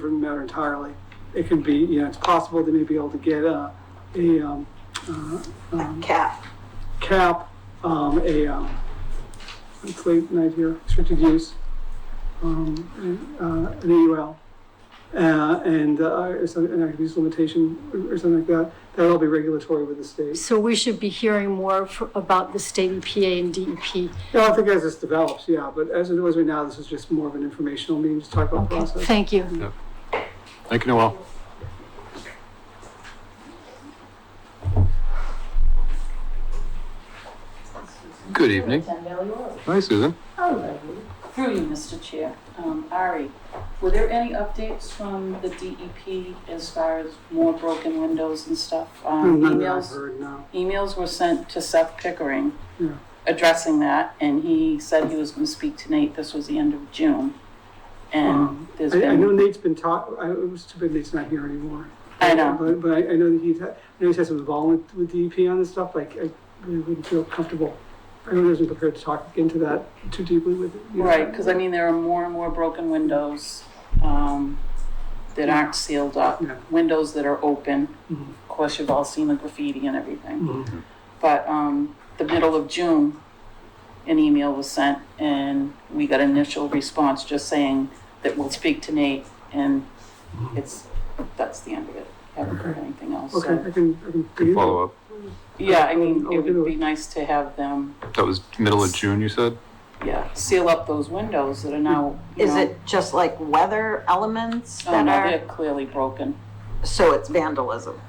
matter entirely. It can be, you know, it's possible they may be able to get a, a um, cap. cap, um, a, um, it's late night here, restricted use, um, and, uh, an AUL. Uh, and, uh, or some, an active use limitation or or something like that, that'll be regulatory with the state. So we should be hearing more f- about the state EPA and E DEP. Yeah, I think as this develops, yeah, but as it was right now, this is just more of an informational meeting, just talk about Okay, process. Thank you. Thank you, Noel. Good evening. Hi, Susan. Through you, Mr. Chair. Um, Ari, were there any updates from the DEP as far as more broken windows and stuff? Um, None that I've Emails, heard, no. emails were sent to Seth Pickering Yeah. addressing that, and he said he was gonna speak to Nate. This was the end of June. And there's Um, I, I know been, Nate's been taught, I, it was too bad Nate's not here anymore. I know, But, but I, I know that he's, had- I know he's had some involvement with DEP on this stuff, like, I really wouldn't feel comfortable. I really wasn't prepared to talk into that too deeply with. you know. right, because I mean, there are more and more broken windows, um, that aren't sealed up, Yeah. windows that are open. Mhm. Of course, you've all seen the graffiti and everything. Mhm. But um, the middle of June, an email was sent and we got an initial response just saying that we'll speak to Nate and it's, that's the end of it. Haven't heard Mm-hmm. Okay. anything else. Okay, So, I can, I can. Good follow-up. yeah, I mean, I'll it do would be nice to have them, That was middle of June, you said? yeah, seal up those windows that are now, you Is know, it just like weather elements Oh, that no, are, they're clearly broken. so it's vandalism?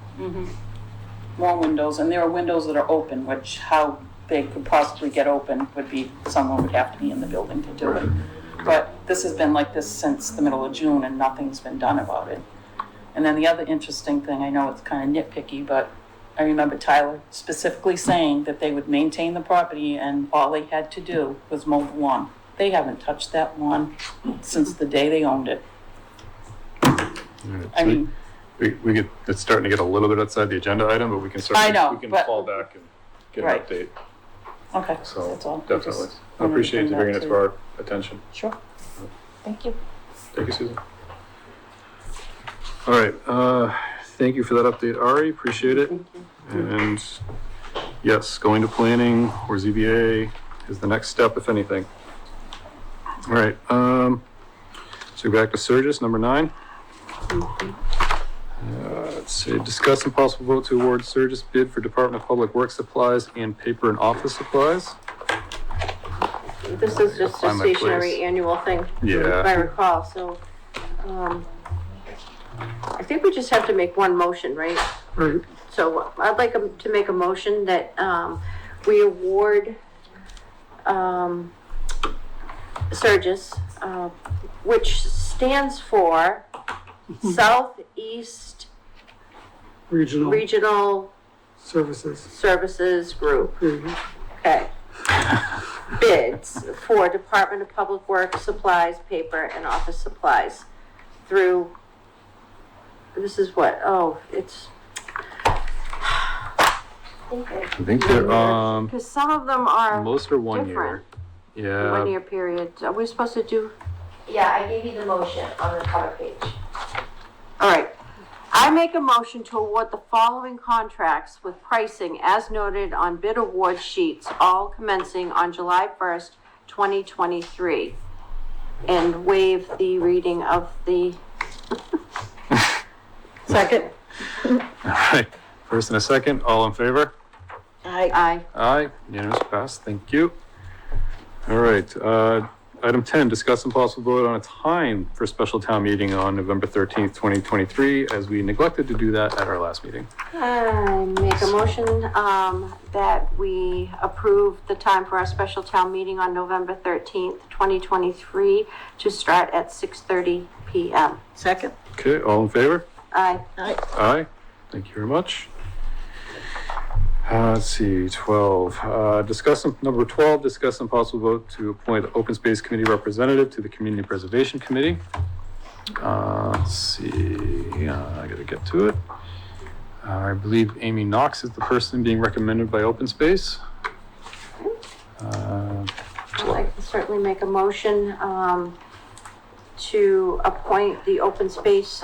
More windows, and there are windows that are open, which how they could possibly get open would be, someone would have to be in the building to do it. But this has been like this since the middle of June and nothing's been done about it. And then the other interesting thing, I know it's kind of nitpicky, but I remember Tyler specifically saying that they would maintain the property and all they had to do was mow the lawn. They haven't touched that lawn since the day they owned it. All right, I so we- mean, We, we get, it's starting to get a little bit outside the agenda item, but we can certainly, know, we can but- fall back and get an Right. update. okay, that's So, all. definitely. Just I wanted appreciate bring you that bringing it to- to our attention. Sure. Thank you. Thank you, Susan. All right, uh, thank you for that update, Ari, appreciate it. And yes, going to planning or ZBA is the next step, if anything. All right, um, so back to Surges, number nine. Uh, Let's see, discuss and possible vote to award Surges bid for Department of Public Works Supplies and Paper and Office Supplies. This is just a Find my place. stationary annual thing. If I Yeah, recall, so, um, I think we just have to make one motion, right? Right, So I'd like to make a motion that, um, we award, um, Surges, uh, which stands for Southeast regional Regional services. Services Group. There you go. Okay. Bids for Department of Public Works supplies, paper, and office supplies through, this is what, oh, it's, I think they're, um, because some of them are most uh, are one year. different. Yeah. One-year period. Are we supposed to do? Yeah, I gave you the motion on the cover page. All right. I make a motion to award the following contracts with pricing as noted on bid award sheets, all commencing on July first, twenty twenty-three. And waive the reading of the Second. Alright, first and a second, all in favor? I, I. Aye, unanimous pass, thank you. Alright, uh, item ten, discuss and possible vote on a time for special town meeting on November thirteenth, twenty twenty-three, as we neglected to do that at our last meeting. I make a motion, um, that we approve the time for our special town meeting on November thirteenth, twenty twenty-three to start at six thirty PM. Second. Okay, all in favor? Aye. Aye, thank you very much. Uh, let's see, twelve, uh, discuss, and- number twelve, discuss and possible vote to appoint Open Space Committee Representative to the Community Preservation Committee. Uh, let's see, uh, I gotta get to it. Uh, I believe Amy Knox is the person being recommended by Open Space. Uh, Well, I can certainly make a motion, um, to appoint the open space